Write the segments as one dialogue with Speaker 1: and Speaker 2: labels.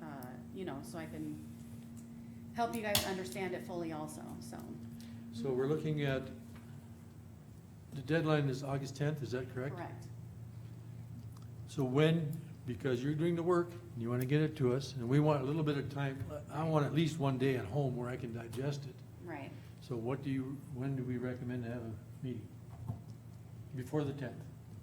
Speaker 1: uh, you know, so I can help you guys understand it fully also, so.
Speaker 2: So we're looking at, the deadline is August tenth, is that correct?
Speaker 1: Correct.
Speaker 2: So when, because you're doing the work, and you wanna get it to us, and we want a little bit of time, I want at least one day at home where I can digest it.
Speaker 1: Right.
Speaker 2: So what do you, when do we recommend to have a meeting? Before the tenth?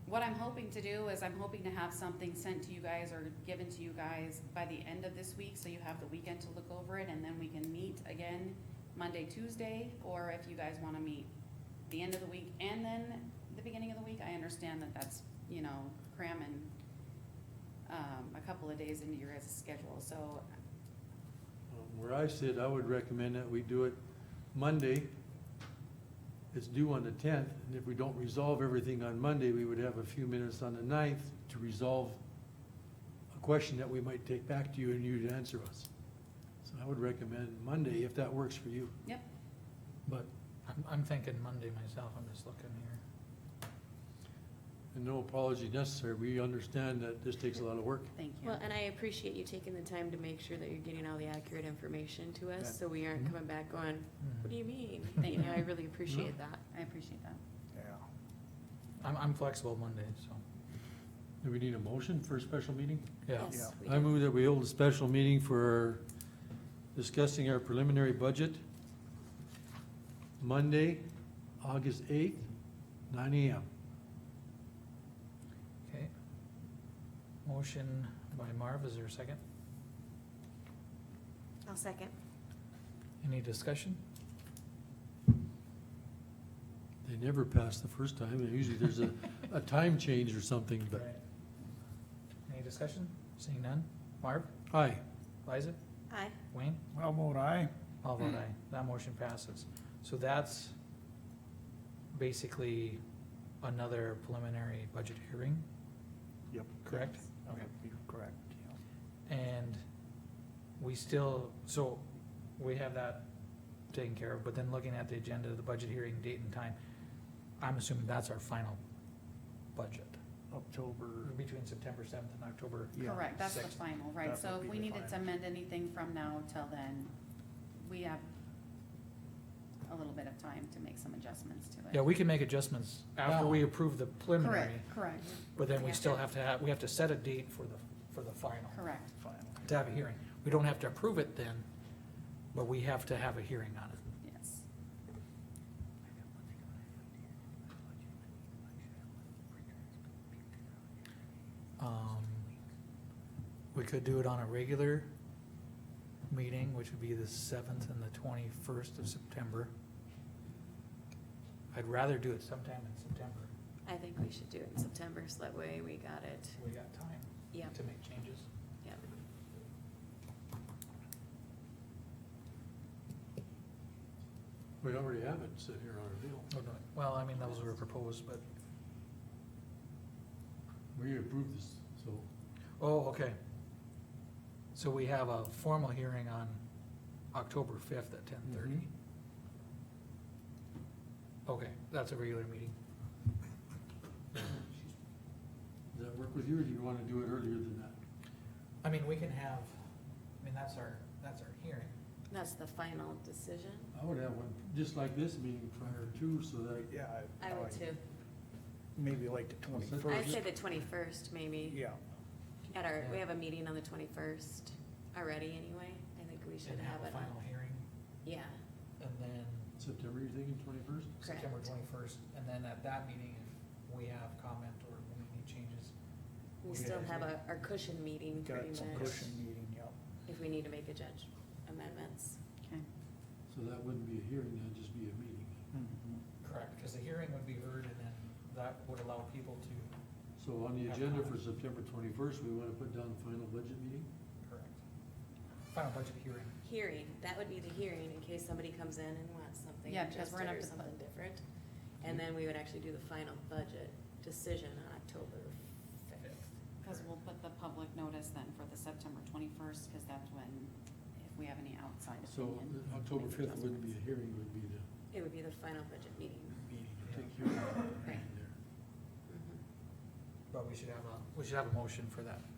Speaker 1: What I'm hoping to do is I'm hoping to have something sent to you guys or given to you guys by the end of this week, so you have the weekend to look over it, and then we can meet again Monday, Tuesday, or if you guys wanna meet the end of the week and then the beginning of the week, I understand that that's, you know, cramming um, a couple of days into your guys' schedule, so,
Speaker 2: Um, Where I sit, I would recommend that we do it Monday. It's due on the tenth, and if we don't resolve everything on Monday, we would have a few minutes on the ninth to resolve a question that we might take back to you and you to answer us. So I would recommend Monday, if that works for you.
Speaker 1: yep,
Speaker 2: But,
Speaker 3: I'm, I'm thinking Monday myself, I'm just looking here.
Speaker 2: and no apology necessary, we understand that this takes a lot of work.
Speaker 1: thank you.
Speaker 4: Well, and I appreciate you taking the time to make sure that you're getting all the accurate information to
Speaker 2: Yeah.
Speaker 4: us, so we aren't
Speaker 3: Mhm.
Speaker 4: coming back going, what do you mean?
Speaker 1: Thank
Speaker 4: You know,
Speaker 1: you.
Speaker 4: I really appreciate that.
Speaker 1: I appreciate that.
Speaker 5: Yeah.
Speaker 3: Hmm. I'm, I'm flexible Monday, so,
Speaker 2: Do we need a motion for a special meeting?
Speaker 3: yeah.
Speaker 4: Yes,
Speaker 5: Yeah.
Speaker 4: we
Speaker 2: I
Speaker 4: do.
Speaker 2: move that we hold a special meeting for discussing our preliminary budget Monday, August eighth, nine AM.
Speaker 3: Okay. Motion by Marv, is there a second?
Speaker 4: I'll second.
Speaker 3: Any discussion?
Speaker 2: They never pass the first time, and usually there's a, a time change or something, but,
Speaker 3: Right. Any discussion? Seeing none? Marv,
Speaker 2: aye.
Speaker 3: Liza,
Speaker 4: Aye.
Speaker 3: Wayne,
Speaker 5: I'll vote aye.
Speaker 3: all vote aye,
Speaker 4: Hmm.
Speaker 3: that motion passes. So that's basically another preliminary budget hearing,
Speaker 5: Yep.
Speaker 3: correct?
Speaker 5: Yep, You're correct, yeah.
Speaker 3: And we still, so we have that taken care of, but then looking at the agenda, the budget hearing date and time, I'm assuming that's our final budget,
Speaker 5: October,
Speaker 3: between September seventh and October.
Speaker 5: yeah.
Speaker 1: Correct, that's the
Speaker 3: Six.
Speaker 1: final, right,
Speaker 5: That
Speaker 1: so if
Speaker 5: would be
Speaker 1: we
Speaker 5: the
Speaker 1: needed to
Speaker 5: final.
Speaker 1: amend anything from now till then, we have a little bit of time to make some adjustments to it.
Speaker 3: Yeah, we can make adjustments after we
Speaker 2: Now.
Speaker 3: approve the preliminary,
Speaker 1: Correct, correct,
Speaker 3: but then
Speaker 4: We
Speaker 3: we
Speaker 4: have
Speaker 3: still
Speaker 4: to-
Speaker 3: have to have, we have to set a date for the, for the final,
Speaker 1: correct,
Speaker 5: Final.
Speaker 3: to have a hearing. We don't have to approve it then, but we have to have a hearing on it.
Speaker 1: yes.
Speaker 3: Um, we could do it on a regular meeting, which would be the seventh and the twenty-first of September. I'd rather do it sometime in September.
Speaker 4: I think we should do it in September, so that way we got it.
Speaker 3: We got time
Speaker 4: Yep,
Speaker 3: to make changes.
Speaker 4: yep.
Speaker 2: We already have it sit here on our bill.
Speaker 3: Oh, no, Well, I mean, those were proposed, but,
Speaker 2: We approved this, so.
Speaker 3: oh, okay. So we have a formal hearing on October fifth at ten thirty.
Speaker 2: Mhm.
Speaker 3: Okay, that's a regular meeting.
Speaker 2: Does that work with you, or do you wanna do it earlier than that?
Speaker 3: I mean, we can have, I mean, that's our, that's our hearing.
Speaker 4: That's the final decision.
Speaker 2: I would have one, just like this meeting prior to, so that
Speaker 5: Yeah.
Speaker 4: I would too.
Speaker 5: Maybe like the
Speaker 2: Well, so-
Speaker 4: I'd say
Speaker 5: twenty-first.
Speaker 4: the twenty-first, maybe.
Speaker 5: Yeah,
Speaker 4: At our, we have a meeting on the twenty-first already anyway. I think we
Speaker 3: And
Speaker 4: should have
Speaker 3: have a
Speaker 4: it on.
Speaker 3: final hearing,
Speaker 4: Yeah,
Speaker 3: and then
Speaker 2: September, you're thinking twenty-first?
Speaker 3: September twenty-first, and then at that meeting, if we have comment or we need changes.
Speaker 4: we
Speaker 3: Yeah.
Speaker 4: still have a, our cushion meeting
Speaker 5: got
Speaker 4: pretty
Speaker 5: some
Speaker 4: much,
Speaker 5: cushion meeting, yep.
Speaker 4: if we need to make a judge amendments.
Speaker 1: Okay,
Speaker 2: So that wouldn't be a hearing, that'd just be a meeting.
Speaker 5: Mhm.
Speaker 3: Correct, because the hearing would be heard, and then that would allow people to.
Speaker 2: So on the agenda for September twenty-first, we wanna put down the final budget meeting?
Speaker 3: Correct. Final budget hearing.
Speaker 4: Hearing, that would be the hearing in case somebody comes in and wants something
Speaker 1: Yeah, because we're
Speaker 4: adjusted
Speaker 1: gonna have
Speaker 4: or
Speaker 1: to put-
Speaker 4: something different. And then we would actually do the final budget decision on October fifth.
Speaker 1: because we'll put the public notice then for the September twenty-first, because that's when, if we have any outside
Speaker 2: So
Speaker 1: opinion.
Speaker 2: uh, October
Speaker 1: make
Speaker 2: fifth wouldn't be
Speaker 1: adjustments.
Speaker 2: a hearing, would be the
Speaker 4: It would be the final budget meeting.
Speaker 2: meeting, I think you're right
Speaker 1: Right.
Speaker 2: there.
Speaker 4: Mm-hmm.
Speaker 3: But we should have a, we should have a motion for that